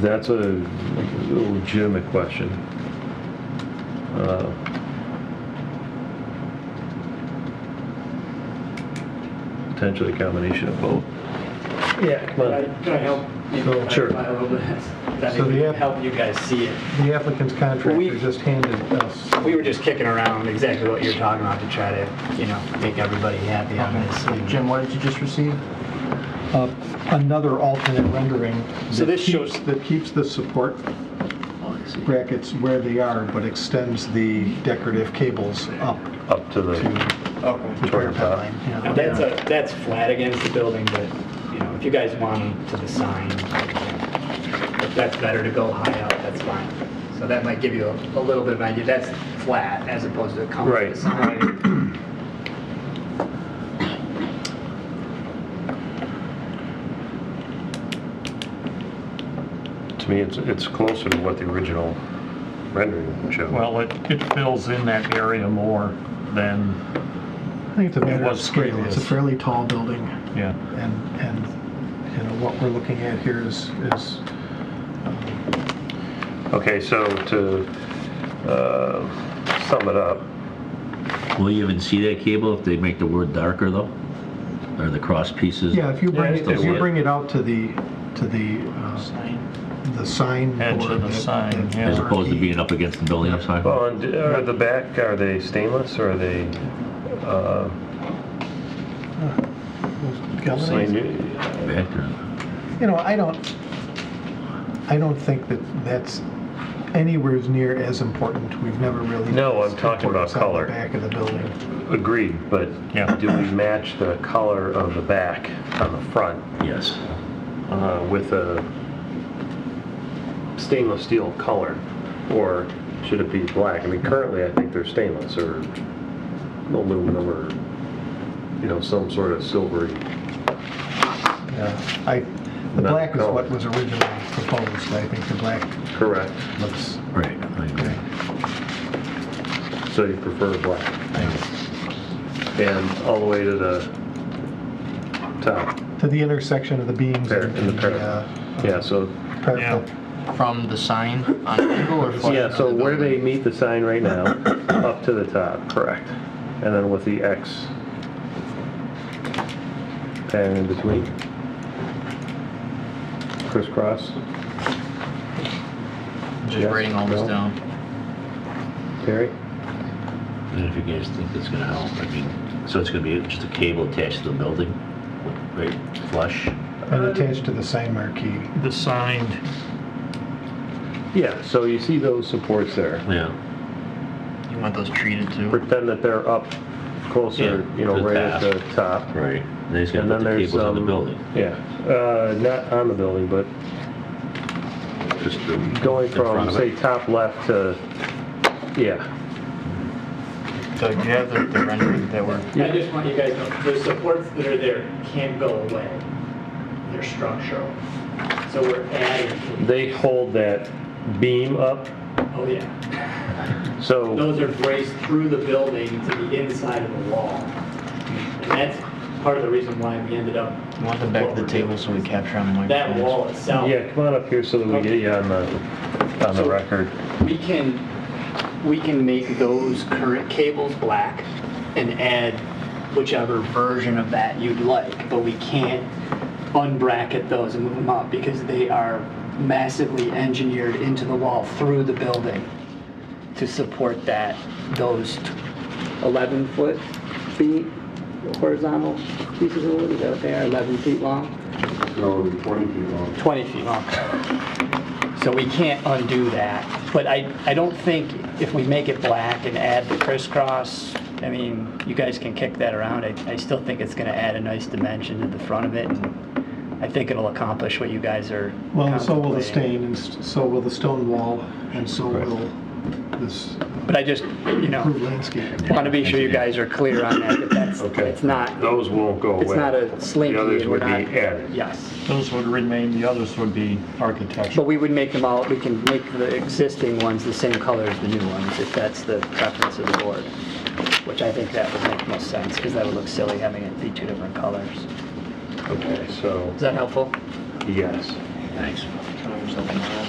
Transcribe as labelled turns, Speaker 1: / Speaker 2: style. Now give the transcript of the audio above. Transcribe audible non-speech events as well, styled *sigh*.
Speaker 1: That's a legitimate question. Uh, Potentially a combination of both.
Speaker 2: Yeah,
Speaker 1: Come on.
Speaker 2: I- Can I help? you
Speaker 3: So-
Speaker 2: clarify
Speaker 1: Sure.
Speaker 2: a little bit? *laughs* That
Speaker 3: So the
Speaker 2: may
Speaker 3: app-
Speaker 2: help you guys see it.
Speaker 3: The applicant's contractor
Speaker 2: We-
Speaker 3: just handed us,
Speaker 2: We were just kicking around exactly what you're talking about to try to, you know, make everybody happy on this.
Speaker 4: Jim, what did you just receive?
Speaker 3: uh, another alternate rendering.
Speaker 2: So
Speaker 3: that
Speaker 2: this shows-
Speaker 3: keeps- That keeps the support brackets where they are, but extends the decorative cables up
Speaker 1: Up to
Speaker 3: to
Speaker 1: the,
Speaker 3: the
Speaker 1: Toward
Speaker 3: power
Speaker 1: the top.
Speaker 3: line.
Speaker 2: Now, That's a, that's flat against the building, but, you know, if you guys want to the sign, if that's better to go high up, that's fine. So that might give you a a little bit of idea. That's flat as opposed to a compass.
Speaker 1: Right.
Speaker 2: sign.
Speaker 1: to me, it's, it's closer to what the original rendering showed.
Speaker 5: Well, it, it fills in that area more than,
Speaker 3: I think it's a matter of
Speaker 5: was
Speaker 3: scale. It's a
Speaker 5: previous.
Speaker 3: fairly tall building,
Speaker 5: yeah,
Speaker 3: and, and, you know, what we're looking at here is, is
Speaker 1: Okay, so to uh, sum it up,
Speaker 6: Will you even see that cable if they make the word darker though? Or the cross pieces?
Speaker 3: Yeah, if you bring, it- if you
Speaker 6: Yeah.
Speaker 3: bring it out to the, to the, uh, the sign.
Speaker 5: Edge of
Speaker 3: board,
Speaker 5: the sign, yeah.
Speaker 6: As opposed to being up against the building outside?
Speaker 1: well, and are the back, are they stainless or are they? uh,
Speaker 3: Galvanized.
Speaker 1: slanted?
Speaker 6: Back or-
Speaker 3: You know, I don't, I don't think that that's anywhere as near as important. We've never really.
Speaker 1: No, I'm talking about
Speaker 3: It's on the
Speaker 1: color.
Speaker 3: Back of the building.
Speaker 1: Agreed, but
Speaker 5: Yeah.
Speaker 1: do we match the color of the back on the front
Speaker 6: Yes.
Speaker 1: uh, with a stainless steel color? Or should it be black? I mean, currently, I think they're stainless or aluminum or, you know, some sort of silvery.
Speaker 3: Yeah, I, the
Speaker 1: Not
Speaker 3: black is
Speaker 1: color.
Speaker 3: what was originally proposed. I think the black
Speaker 1: Correct.
Speaker 3: looks,
Speaker 6: Right, I agree.
Speaker 1: So you prefer black? And all the way to the top,
Speaker 3: to the intersection of the beams.
Speaker 1: Par- in the parallel.
Speaker 3: uh,
Speaker 1: yeah, so,
Speaker 3: parallel.
Speaker 4: From the sign on the angle or flush?
Speaker 1: yeah,
Speaker 4: with
Speaker 1: so
Speaker 4: the
Speaker 1: where
Speaker 4: building?
Speaker 1: they meet the sign right now, *coughs* up to the top, correct. And then with the X pattern in between. Crisscross,
Speaker 4: Just writing all this
Speaker 1: No.
Speaker 4: down.
Speaker 1: Terry?
Speaker 6: And if you guys think that's gonna help, I mean, so it's gonna be just a cable attached to the building, right, flush?
Speaker 3: And attached to the sign marquee.
Speaker 5: the signed,
Speaker 1: Yeah, so you see those supports there.
Speaker 6: Yeah.
Speaker 4: You want those treated too?
Speaker 1: Pretend that they're up closer,
Speaker 6: Yeah,
Speaker 1: you know,
Speaker 6: to the
Speaker 1: right at
Speaker 6: top.
Speaker 1: the top.
Speaker 6: Right. And then he's
Speaker 1: And
Speaker 6: gonna
Speaker 1: then
Speaker 6: put the
Speaker 1: there's,
Speaker 6: cables on the
Speaker 1: um,
Speaker 6: building.
Speaker 1: Yeah, uh, not on the building, but
Speaker 6: Just the-
Speaker 1: going
Speaker 6: in front
Speaker 1: from,
Speaker 6: of
Speaker 1: say,
Speaker 6: it.
Speaker 1: top left to, yeah,
Speaker 4: Doug, do you have the the rendering that were,
Speaker 2: I just want you guys to know, the supports that are there can't go away. They're structural. So we're adding,
Speaker 1: they hold that beam up,
Speaker 2: oh yeah.
Speaker 1: so,
Speaker 2: Those are braced through the building to the inside of the wall. And that's part of the reason why we ended up,
Speaker 4: you want them back to the table so we capture on the
Speaker 2: that
Speaker 4: microphones?
Speaker 2: wall itself.
Speaker 1: yeah, come on up here so that we get you on the, on the record.
Speaker 2: We can, we can make those current cables black and add whichever version of that you'd like, but we can't unbracket those and move them up because they are massively engineered into the wall through the building to support that, those 11-foot feet horizontal pieces of wood, is that what they are, 11 feet long?
Speaker 1: No, 20 feet long.
Speaker 2: 20 feet long. So we can't undo that, but I, I don't think if we make it black and add the crisscross, I mean, you guys can kick that around, I, I still think it's gonna add a nice dimension to the front of it, and I think it'll accomplish what you guys are
Speaker 3: Well, so will the
Speaker 2: contemplating.
Speaker 3: stain, and s- so will the stone wall, and so will this
Speaker 2: But I just, you
Speaker 3: improved
Speaker 2: know,
Speaker 3: landscape.
Speaker 2: wanna be sure you guys are clear on that, that that's,
Speaker 1: Okay.
Speaker 2: it's not,
Speaker 1: Those won't go away.
Speaker 2: it's not a slinky,
Speaker 1: The others
Speaker 2: and we're
Speaker 1: would be
Speaker 2: not.
Speaker 1: added.
Speaker 2: Yes.
Speaker 5: those would remain, the others would be architectural.
Speaker 2: But we would make them all, we can make the existing ones the same color as the new ones, if that's the preference of the board, which I think that would make most sense, because that would look silly having it be two different colors.
Speaker 1: Okay, so,
Speaker 2: Is that helpful?
Speaker 1: yes.
Speaker 6: Thanks.
Speaker 4: or something like that.